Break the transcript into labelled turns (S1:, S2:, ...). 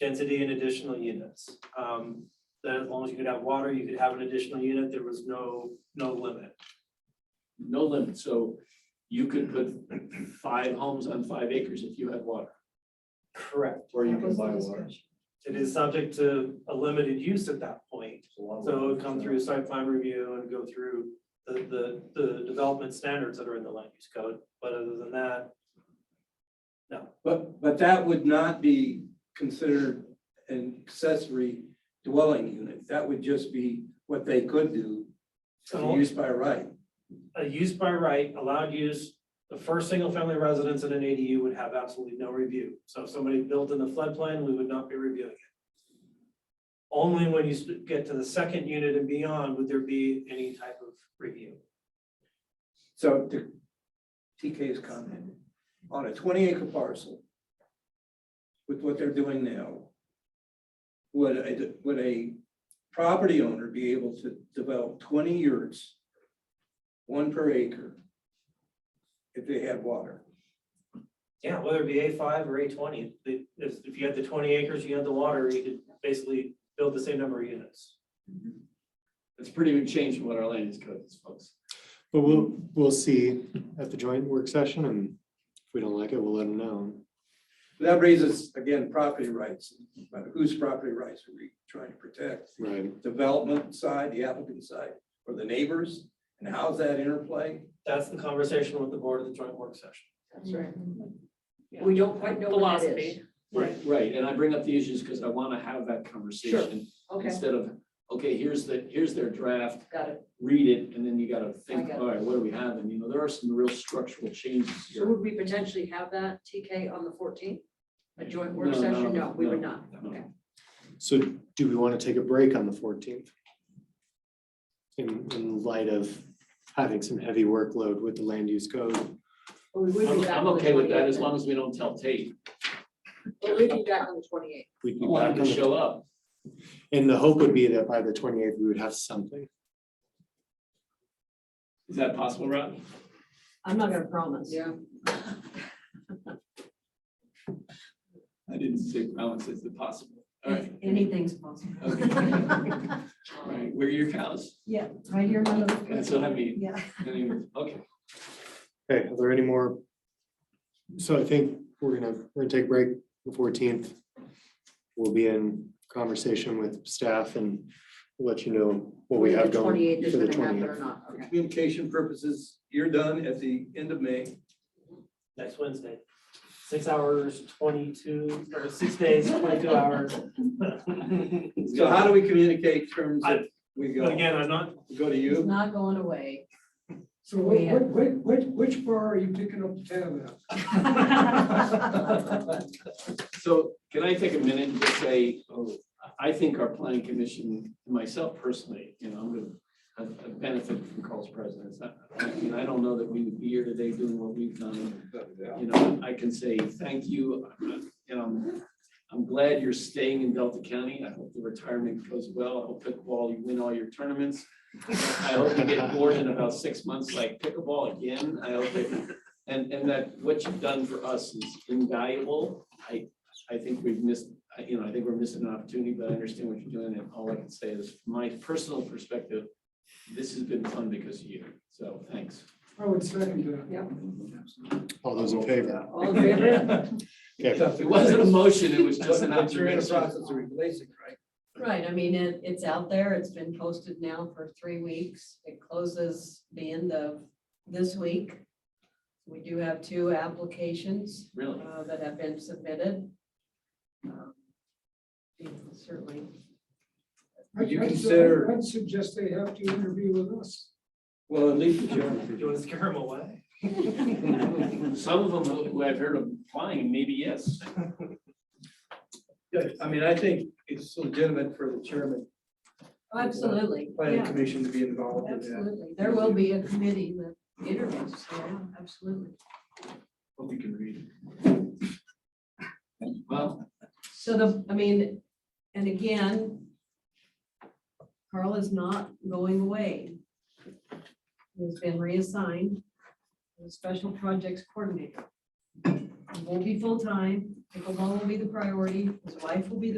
S1: density and additional units. Um, that as long as you could have water, you could have an additional unit, there was no, no limit.
S2: no limit, so you could put five homes on five acres if you had water,
S1: Correct.
S2: or you
S3: That
S2: can
S3: was the
S2: buy water.
S3: discussion.
S1: It is subject to a limited use at that point, so it would come through site plan review and go through the, the, the development standards that are in the land use code, but other than that,
S4: But, but that would not be considered an accessory dwelling unit. That would just be what they could do as a
S1: So-
S4: use by right.
S1: a use by right, allowed use, the first single-family residence in an ADU would have absolutely no review. So if somebody built in the floodplain, we would not be reviewing it. Only when you st- get to the second unit and beyond would there be any type of review.
S4: So to TK's comment, on a twenty acre parcel with what they're doing now, would a, would a property owner be able to develop twenty yurts, one per acre, if they had water?
S1: Yeah, whether it be A five or A twenty, if, if you had the twenty acres, you had the water, you could basically build the same number of units.
S2: It's pretty big change from what our land use code is, folks.
S5: But we'll, we'll see at the joint work session and if we don't like it, we'll let them know.
S4: That raises, again, property rights, but whose property rights are we trying to protect?
S5: Right.
S4: Development side, the applicant side, or the neighbors? And how's that interplay?
S1: That's the conversation with the board at the joint work session.
S3: That's right.
S6: Yeah.
S3: We don't quite know what that is.
S6: Philosophy.
S2: Right, right, and I bring up the issues because I want to have that conversation
S3: Okay,
S2: instead of, okay, here's the, here's their draft,
S3: got it.
S2: read it, and then you gotta think,
S3: got it.
S2: all right, what do we have? And you know, there are some real structural changes
S3: So
S2: here.
S3: would we potentially have that TK on the fourteenth? A joint
S2: No,
S3: work
S2: no,
S3: session?
S2: no,
S3: No, we would
S2: no,
S3: not.
S2: no.
S3: Okay.
S5: So do we want to take a break on the fourteenth? In, in light of having some heavy workload with the land use code.
S3: But we would
S2: I'm,
S3: be back
S2: I'm
S3: on the
S2: okay with that as
S3: 28th.
S2: long as we don't tell Tate,
S3: But we'd be back on the twenty-eighth.
S5: We'd be
S2: we want
S5: back
S2: him
S5: on
S2: to
S5: the-
S2: show up.
S5: And the hope would be that by the twenty eighth, we would have something.
S2: Is that possible, Rob?
S6: I'm not gonna promise.
S3: Yeah.
S2: I didn't say balance is it possible. All right,
S6: Anything's possible.
S2: Okay. all right, where are your cows?
S6: Yeah, right here, none of those.
S2: That's what I mean.
S6: Yeah.
S2: Anyway, Okay,
S5: Okay, are there any more? So I think we're gonna, we're gonna take a break the fourteenth. We'll be in conversation with staff and let you know what we have going.
S3: Twenty-eighth is
S5: for the
S3: gonna happen or
S5: 28th.
S3: not. Okay.
S4: Communication purposes, you're done at the end of May.
S1: next Wednesday. Six hours, twenty-two, or six days, twenty-two hours.
S4: So how do we communicate terms that we
S1: But
S4: go,
S1: again, I'm not,
S4: go to
S6: It's
S4: you?
S6: not going away.
S7: So what, which, which, which bar are you picking up the tab at?
S2: so can I take a minute and just say, oh, I- I think our planning commission, myself personally, you know, I'm gonna I- I benefit from Carl's presence. I, I mean, I don't know that we would be here today doing what we've done you know, I can say thank you, I'm, you know, I'm glad you're staying in Delta County, I hope the retirement goes well, I hope pickleball, you win all your tournaments. I hope you get bored in about six months like pickleball again, I hope that, and, and that what you've done for us is invaluable. I, I think we've missed, I- you know, I think we're missing an opportunity, but I understand what you're doing, and all I can say is, from my personal perspective, this has been fun because of you, so thanks.
S7: I would second that.
S5: All those in favor?
S3: All in favor?
S5: Okay,
S2: It wasn't a motion, it was just an
S4: But you're in the
S2: observation.
S4: process of replacing, right?
S6: Right, I mean, it, it's out there, it's been posted now for three weeks, it closes the end of this week. We do have two applications
S2: Really?
S6: uh, that have been submitted. Um, you know, Certainly,
S4: Would you
S7: I'd- I'd-
S4: consider-
S7: I'd suggest they have to interview with us.
S4: Well, at least the
S1: do
S4: gentleman-
S1: you want to scare them away?
S2: Some of them who I've heard of applying, maybe yes.
S4: Yeah, I mean, I think it's legitimate for the chairman,
S6: absolutely,
S4: planning
S6: yeah,
S4: commission to be involved in that.
S6: absolutely, there will be a committee that interviews, so, yeah, absolutely.
S2: Hope you can read it. Well,
S6: So the, I mean, and again, Carl is not going away. He's been reassigned as special projects coordinator. He Won't be full-time, pickleball will be the priority, his wife will be the